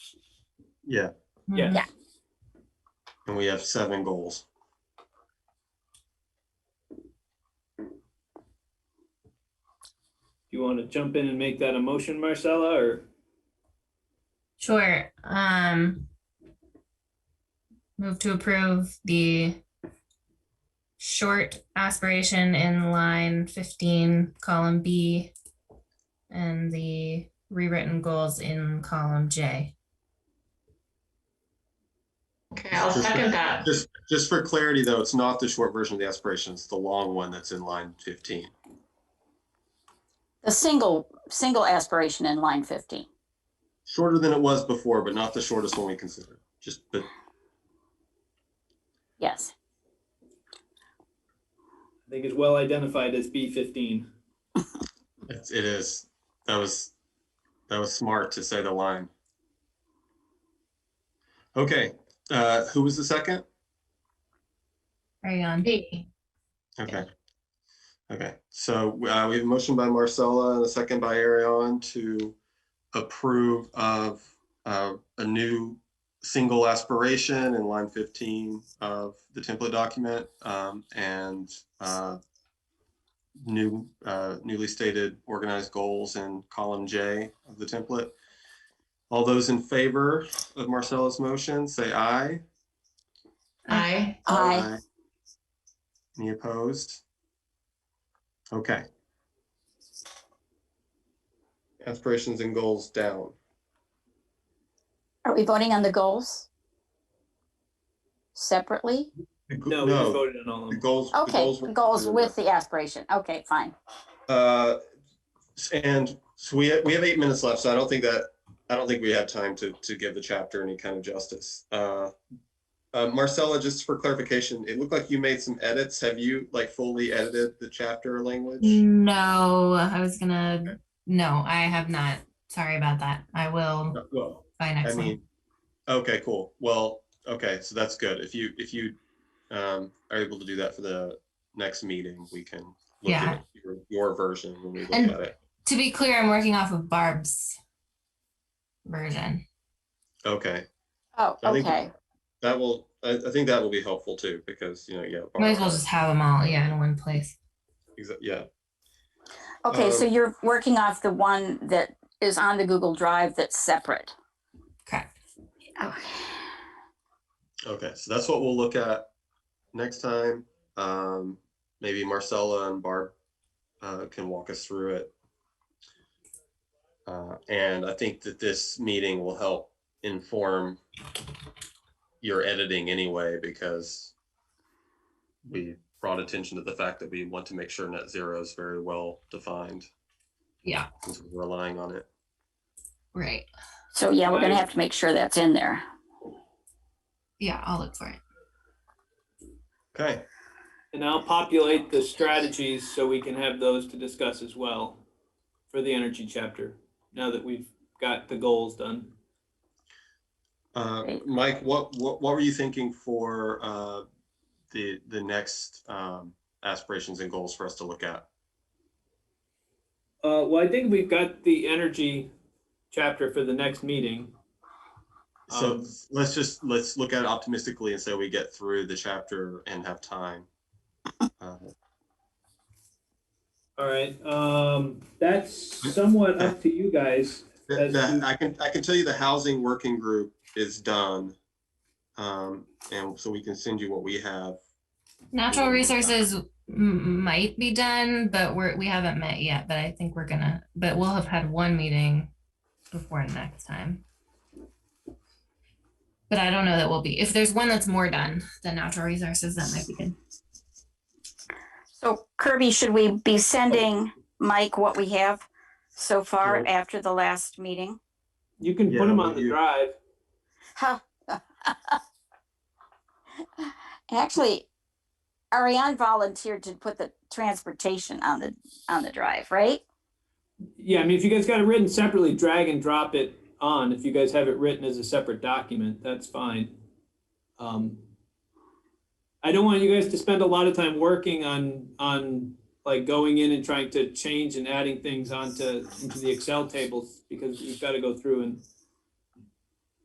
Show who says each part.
Speaker 1: Yeah,
Speaker 2: Yeah.
Speaker 3: Yeah.
Speaker 1: and we have seven goals.
Speaker 2: You want to jump in and make that a motion, Marcella, or
Speaker 3: Sure. Um, move to approve the short aspiration in line fifteen, column B, and the rewritten goals in column J.
Speaker 4: Okay, I'll second that.
Speaker 1: Just, just for clarity though, it's not the short version of the aspiration, it's the long one that's in line fifteen.
Speaker 5: The single, single aspiration in line 15.
Speaker 1: Shorter than it was before, but not the shortest one we considered, just, but
Speaker 5: Yes.
Speaker 2: I think is well identified as B fifteen.
Speaker 1: it's, it is, that was, that was smart to say the line. Okay, uh, who was the second?
Speaker 3: Are you on?
Speaker 4: B.
Speaker 1: Okay. Okay, so uh, we have a motion by Marcella and a second by Arion to approve of uh, a new single aspiration in line 15 of the template document um, and uh, new, uh, newly stated organized goals in column J of the template. All those in favor of Marcella's motion, say aye.
Speaker 4: Aye.
Speaker 5: I
Speaker 1: Any opposed? Okay. Aspirations and goals down.
Speaker 5: Are we voting on the goals? Separately?
Speaker 2: No, we just voted on all of
Speaker 1: The
Speaker 2: them.
Speaker 1: goals. the
Speaker 5: Okay,
Speaker 1: were-
Speaker 5: goals with the aspiration. Okay, fine.
Speaker 1: Uh, And so we, we have eight minutes left, so I don't think that, I don't think we have time to, to give the chapter any kind of justice. Uh, uh, Marcella, just for clarification, it looked like you made some edits. Have you like fully edited the chapter
Speaker 2: Mm.
Speaker 1: language?
Speaker 3: No, I was gonna, no, I have not. Sorry about that. I will
Speaker 1: Well,
Speaker 3: by
Speaker 1: I
Speaker 3: next one.
Speaker 1: mean, okay, cool. Well, okay, so that's good. If you, if you um, are able to do that for the next meeting, we can look
Speaker 3: Yeah.
Speaker 1: at your, your version when we look
Speaker 3: And-
Speaker 1: at it.
Speaker 3: To be clear, I'm working off of Barb's version.
Speaker 1: Okay,
Speaker 5: Oh,
Speaker 1: I think-
Speaker 5: okay.
Speaker 1: that will, I, I think that will be helpful too, because, you know, yeah.
Speaker 3: Might as well just have them all, yeah, in one place.
Speaker 1: Exa- Yeah,
Speaker 5: Okay, so
Speaker 1: um,
Speaker 5: you're working off the one that is on the Google Drive that's separate.
Speaker 3: Correct.
Speaker 5: Okay.
Speaker 1: okay, so that's what we'll look at next time. Um, Maybe Marcella and Barb uh, can walk us through it. Uh, And I think that this meeting will help inform your editing anyway, because we brought attention to the fact that we want to make sure net zero is very well defined.
Speaker 3: Yeah.
Speaker 1: Since we're relying on it.
Speaker 3: Right.
Speaker 5: So yeah, we're gonna have to make sure that's in there.
Speaker 3: Yeah, I'll look for it.
Speaker 1: Okay,
Speaker 2: And I'll populate the strategies so we can have those to discuss as well for the energy chapter, now that we've got the goals done.
Speaker 1: uh,
Speaker 5: Great.
Speaker 1: Mike, what, what, what were you thinking for uh, the, the next um, aspirations and goals for us to look at?
Speaker 2: Uh, well, I think we've got the energy chapter for the next meeting.
Speaker 1: So
Speaker 2: Um,
Speaker 1: let's just, let's look at it optimistically and say we get through the chapter and have time. Uh,
Speaker 2: All right, um, that's somewhat up to you guys.
Speaker 1: That,
Speaker 2: As
Speaker 1: that,
Speaker 2: you-
Speaker 1: I can, I can tell you the housing working group is done. Um, and so we can send you what we have.
Speaker 3: Natural resources m- might be done, but we're, we haven't met yet, but I think we're gonna, but we'll have had one meeting before next time. But I don't know that we'll be, if there's one that's more done than natural resources, that might be good.
Speaker 5: So Kirby, should we be sending Mike what we have so far
Speaker 1: Nope.
Speaker 5: after the last meeting?
Speaker 2: You can
Speaker 1: Yeah,
Speaker 2: put them on the
Speaker 1: you-
Speaker 2: drive.
Speaker 5: Huh. Actually, Ariane volunteered to put the transportation on the, on the drive, right?
Speaker 2: Yeah, I mean, if you guys got it written separately, drag and drop it on. If you guys have it written as a separate document, that's fine. Um, I don't want you guys to spend a lot of time working on, on like going in and trying to change and adding things onto, into the Excel tables because you've got to go through and